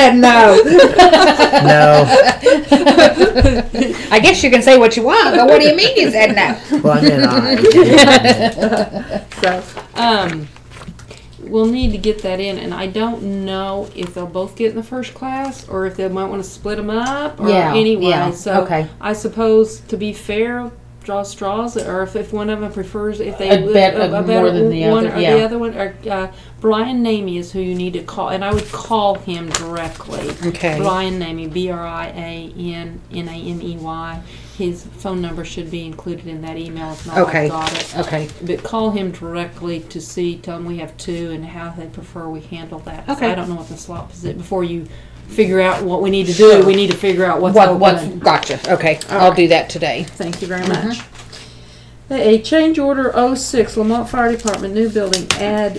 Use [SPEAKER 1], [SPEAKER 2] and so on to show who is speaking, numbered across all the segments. [SPEAKER 1] no.
[SPEAKER 2] No.
[SPEAKER 1] I guess you can say what you want, but what do you mean you said no?
[SPEAKER 2] One and I.
[SPEAKER 1] So,
[SPEAKER 3] Um, we'll need to get that in, and I don't know if they'll both get in the first class or if they might want to split them up. Or
[SPEAKER 1] Yeah,
[SPEAKER 3] Anyway,
[SPEAKER 1] yeah,
[SPEAKER 3] so
[SPEAKER 1] okay.
[SPEAKER 3] I suppose to be fair, draw straws, or if, if one of them prefers, if they
[SPEAKER 4] A bet of more than the
[SPEAKER 3] one
[SPEAKER 4] other,
[SPEAKER 3] or
[SPEAKER 4] yeah.
[SPEAKER 3] the other one, or uh, Brian Namey is who you need to call, and I would call him directly.
[SPEAKER 1] Okay.
[SPEAKER 3] Brian Namey, B R I A N N A M E Y. His phone number should be included in that email. If not,
[SPEAKER 1] Okay.
[SPEAKER 3] I've got it.
[SPEAKER 1] okay.
[SPEAKER 3] But call him directly to see, tell him we have two and how they prefer we handle that. 'Cause
[SPEAKER 1] Okay.
[SPEAKER 3] I don't know what the slot position, before you figure out what we need to do, we need to figure out what's
[SPEAKER 1] What, what,
[SPEAKER 3] open.
[SPEAKER 1] gotcha. Okay, I'll do that today.
[SPEAKER 3] Thank you very much. A change order 06, Lamont Fire Department, new building, add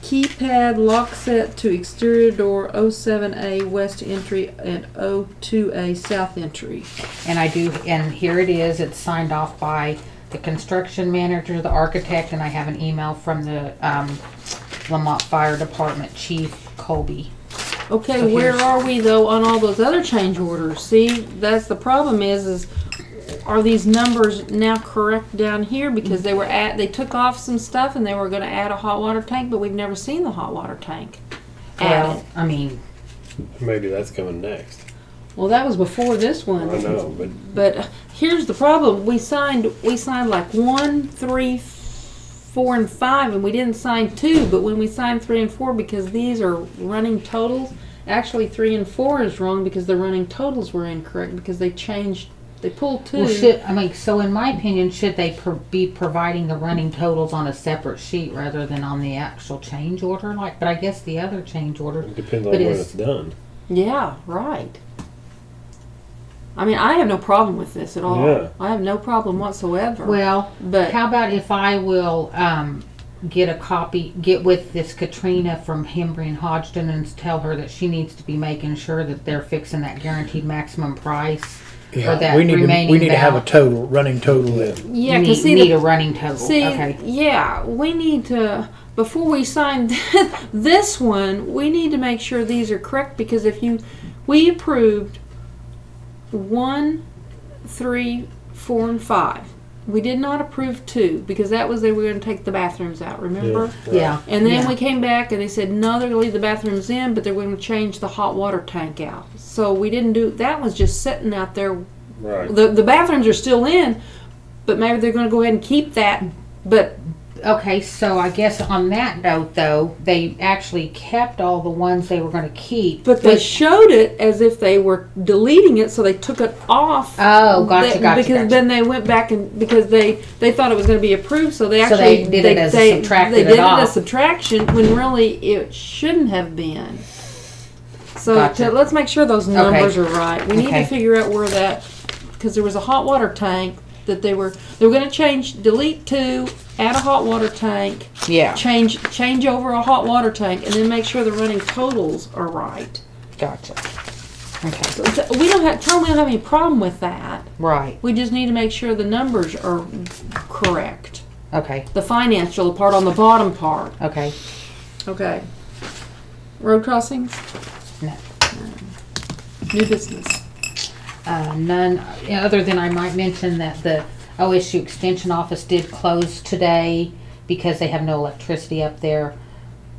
[SPEAKER 3] keypad lock set to exterior door 07A west entry and 02A south entry.
[SPEAKER 4] And I do, and here it is, it's signed off by the construction manager, the architect, and I have an email from the, um, Lamont Fire Department Chief Colby.
[SPEAKER 3] Okay,
[SPEAKER 4] So
[SPEAKER 3] where
[SPEAKER 4] here's-
[SPEAKER 3] are we though on all those other change orders? See, that's the problem is, is are these numbers now correct down here because they were at they took off some stuff and they were going to add a hot water tank, but we've never seen the hot water tank added.
[SPEAKER 4] Well, I mean,
[SPEAKER 5] Maybe that's coming next.
[SPEAKER 3] Well, that was before this
[SPEAKER 5] I
[SPEAKER 3] one.
[SPEAKER 5] know, but
[SPEAKER 3] But here's the problem: we signed we signed like one, three, four, and five, and we didn't sign two. But when we signed three and four, because these are running totals, actually three and four is wrong because the running totals were incorrect because they changed. They pulled two.
[SPEAKER 4] well, should, I mean, so in my opinion, should they pro- be providing the running totals on a separate sheet rather than on the actual change order? Like, but I guess the other change order,
[SPEAKER 5] it depends on
[SPEAKER 4] But
[SPEAKER 5] when
[SPEAKER 4] is-
[SPEAKER 5] it's done.
[SPEAKER 3] Yeah, right. I mean, I have no problem with this at all.
[SPEAKER 5] Yeah.
[SPEAKER 3] I have no problem whatsoever.
[SPEAKER 4] well,
[SPEAKER 3] but
[SPEAKER 4] How about if I will um, get a copy, get with this Katrina from Hembry and Hodgson and tell her that she needs to be making sure that they're fixing that guaranteed maximum price. Or that
[SPEAKER 2] Yeah, we need to, we
[SPEAKER 4] remaining
[SPEAKER 2] need to have a
[SPEAKER 4] balance.
[SPEAKER 2] total, running total in.
[SPEAKER 3] yeah,
[SPEAKER 4] need,
[SPEAKER 3] because see,
[SPEAKER 4] need
[SPEAKER 3] the
[SPEAKER 4] a running total.
[SPEAKER 3] See,
[SPEAKER 4] okay.
[SPEAKER 3] yeah, we need to before we sign this one, we need to make sure these are correct because if you we approved one, three, four, and five. We did not approve two because that was they were going to take the bathrooms out. Remember?
[SPEAKER 4] Yeah.
[SPEAKER 3] And then
[SPEAKER 4] yeah.
[SPEAKER 3] we came back and they said no, they're going to leave the bathrooms in, but they're going to change the hot water tank out. So we didn't do that. Was just sitting out there
[SPEAKER 5] Right.
[SPEAKER 3] the the bathrooms are still in, but maybe they're going to go ahead and keep that. But
[SPEAKER 4] Okay, so I guess on that note, though, they actually kept all the ones they were going to keep.
[SPEAKER 3] but they
[SPEAKER 4] which-
[SPEAKER 3] showed it as if they were deleting it, so they took it off.
[SPEAKER 4] oh, gotcha,
[SPEAKER 3] That-
[SPEAKER 4] gotcha.
[SPEAKER 3] because
[SPEAKER 4] gotcha.
[SPEAKER 3] then they went back and because they they thought it was going to be approved, so they
[SPEAKER 4] So
[SPEAKER 3] actually
[SPEAKER 4] they did it as a
[SPEAKER 3] they,
[SPEAKER 4] subtracted
[SPEAKER 3] they
[SPEAKER 4] it
[SPEAKER 3] did it
[SPEAKER 4] off.
[SPEAKER 3] as subtraction when really it shouldn't have been. So
[SPEAKER 4] Gotcha.
[SPEAKER 3] to- let's make sure those numbers are right. We need
[SPEAKER 4] Okay.
[SPEAKER 3] to figure out where that because there was a hot water tank that they were they were going to change delete two add a hot water tank
[SPEAKER 1] Yeah,
[SPEAKER 3] change change over a hot water tank and then make sure the running totals are right.
[SPEAKER 1] gotcha.
[SPEAKER 3] So it's- we don't have tell them we don't have any problem with that.
[SPEAKER 1] Right,
[SPEAKER 3] We just need to make sure the numbers are correct.
[SPEAKER 1] okay,
[SPEAKER 3] The financial part on the bottom part.
[SPEAKER 1] okay.
[SPEAKER 3] Okay. Road crossings?
[SPEAKER 4] No.
[SPEAKER 3] New business.
[SPEAKER 4] Uh, none, other than I might mention that the OSU Extension Office did close today because they have no electricity up there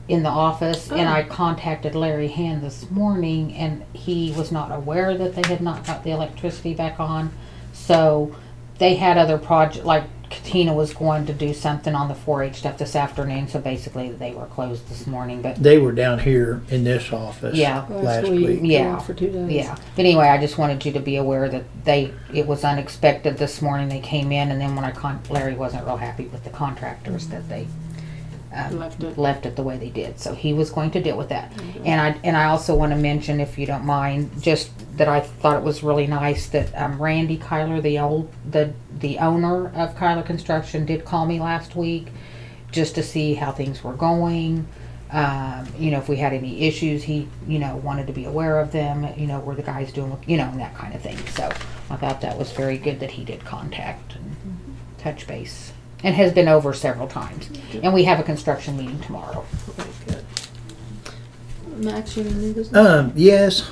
[SPEAKER 4] in the office. And I contacted Larry Hand this morning and he was not aware that they had not got the electricity back on. So they had other project, like Katina was going to do something on the 4-H stuff this afternoon. So basically they were closed this morning, but
[SPEAKER 2] They were down here in this office
[SPEAKER 4] yeah.
[SPEAKER 2] last week.
[SPEAKER 4] Yeah.
[SPEAKER 3] For two days.
[SPEAKER 4] Yeah, but anyway, I just wanted you to be aware that they, it was unexpected this morning, they came in, and then when I con, Larry wasn't real happy with the contractors that they
[SPEAKER 3] Left it. Mm-hmm.
[SPEAKER 4] left it the way they did, so he was going to deal with that. And I, and I also wanna mention, if you don't mind, just that I thought it was really nice that, um, Randy Kyler, the old, the, the owner of Kyler Construction, did call me last week, just to see how things were going. Um, you know, if we had any issues, he, you know, wanted to be aware of them, you know, were the guys doing, you know, and that kind of thing. So I thought that was very good that he did contact and
[SPEAKER 3] Mm-hmm.
[SPEAKER 4] touch base and has been over several times. And we have a construction meeting tomorrow.
[SPEAKER 3] Okay, good. matching new business?
[SPEAKER 2] Um, yes,